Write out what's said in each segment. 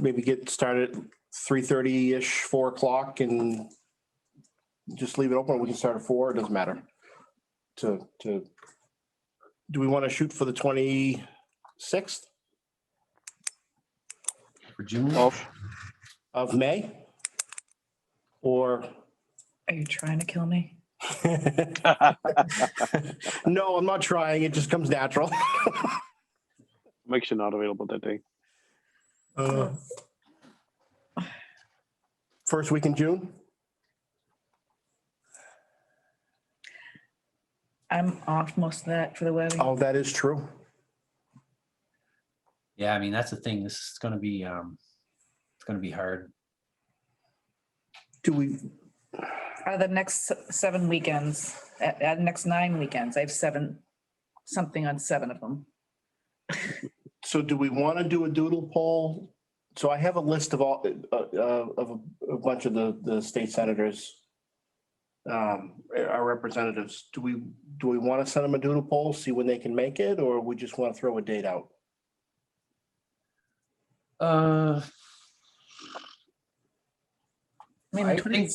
maybe get started three thirty-ish, four o'clock and just leave it open. We can start at four. It doesn't matter. To, to, do we want to shoot for the twenty-sixth For June? Well, of May? Or Are you trying to kill me? No, I'm not trying. It just comes natural. Mike's not available that day. Uh, First week in June? I'm off most of that for the wedding. Oh, that is true. Yeah, I mean, that's the thing. This is gonna be, um, it's gonna be hard. Do we, Are the next s- seven weekends, uh, uh, next nine weekends, I have seven, something on seven of them. so do we want to do a doodle poll? So I have a list of all, uh, uh, of a bunch of the, the state senators. um, Our representatives, do we, do we want to send them a doodle poll, see when they can make it, or we just want to throw a date out? Uh, I mean, I the think- 20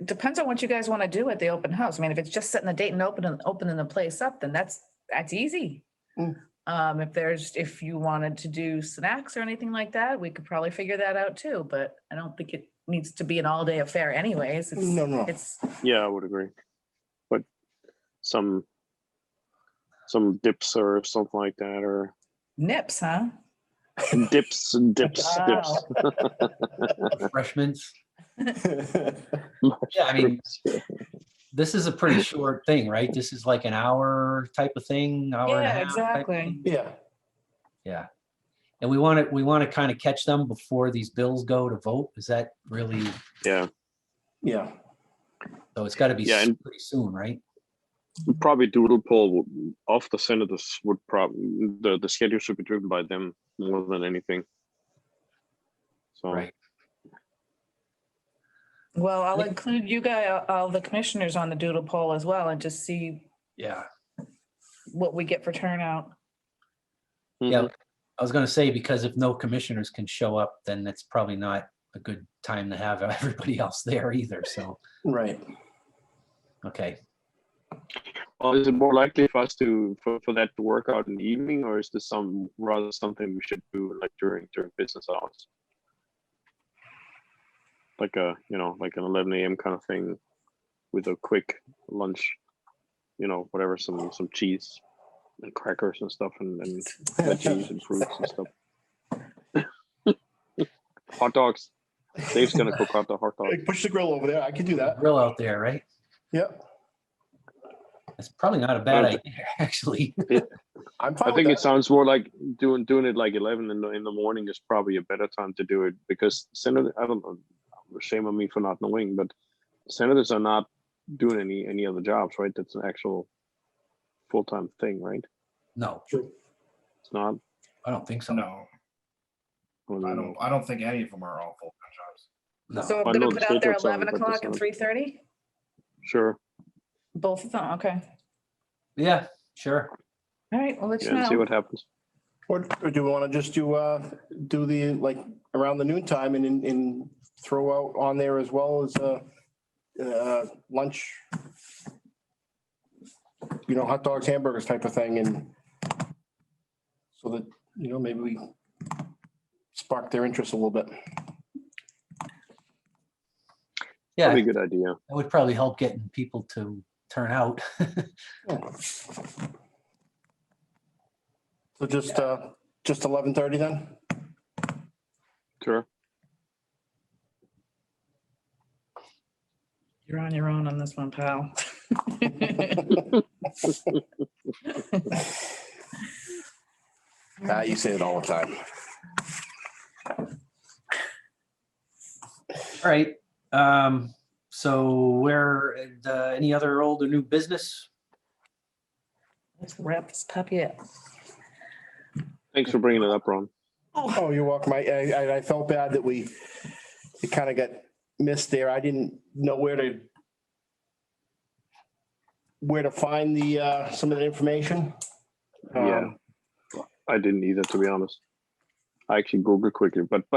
it depends on what you guys want to do at the open house. I mean, if it's just setting the date and opening, opening the place up, then that's, that's easy. Mm. Um, if there's, if you wanted to do snacks or anything like that, we could probably figure that out too, but I don't think it needs to be an all-day affair anyways. It's- No, no. It's, Yeah, I would agree. But some some dips or something like that, or nips, huh? dips, dips, dips. refreshments. Yeah, I mean, this is a pretty short thing, right? This is like an hour type of thing, hour and a Yeah, half. type exactly. thing. Yeah, Yeah. And we want to, we want to kind of catch them before these bills go to vote. Is that really, Yeah, yeah. so it's got to be Yeah, s- and- pretty soon, right? probably doodle poll would- of the senators would probably the the schedule should be driven by them more than anything. So Right. Well, I'll Yeah. include you guys, all the commissioners on the doodle poll as well and just see Yeah. what we get for turnout. Yeah. mhm, I was going to say, because if no commissioners can show up, then that's probably not a good time to have everybody else there either. So, Right. okay. Well, is it more likely for us to for, for that to work out in the evening, or is this some rather something we should do like during during business hours? Like a you know like an eleven a.m. kind of thing, with a quick lunch, you know whatever some some cheese and crackers and stuff and, and veggies and fruits and stuff. hot dogs. Dave's gonna cook out the hot dog. Push the grill over there. I can do that. Grill out there, right? Yep. That's probably not a bad Okay. idea, actually. I'm I fine with think it that. sounds more like doing doing it like eleven in the in the morning is probably a better time to do it because senator I don't know shame on me for not knowing, but senators are not doing any any other jobs, right? That's an actual full time thing, right? No, True. It's not. I don't think so. No, I don't, I don't think any of them are all full-time jobs. No. So I I'm gonna know the put out there schedule's on, eleven but o'clock it's and not- three thirty, Sure. both of them, okay. Yeah, sure. All right, well, let's Yeah, and see know. what happens. Or or do we want to just do, uh, do the, like, around the noon time and, and- and throw out on there as well as, uh, uh, lunch? You know, hot dogs, hamburgers type of thing and so that, you know, maybe we spark their interest a little bit. Yeah, Probably that a good idea. would probably help getting people to turn out. So just, uh, just eleven thirty then? Sure. You're on your own on this one, pal. Ah, you say it all the time. All right. Um, so where, and, uh, any other old or new business? Let's wrap this puppy up. Thanks for bringing it up, Ron. Oh, you're welcome. I, I, I- I felt bad that we, it kind of got missed there. I didn't know where to where to find the, uh, some of the information. Yeah. Um, I didn't either, to be honest. I actually Googled quickly, but but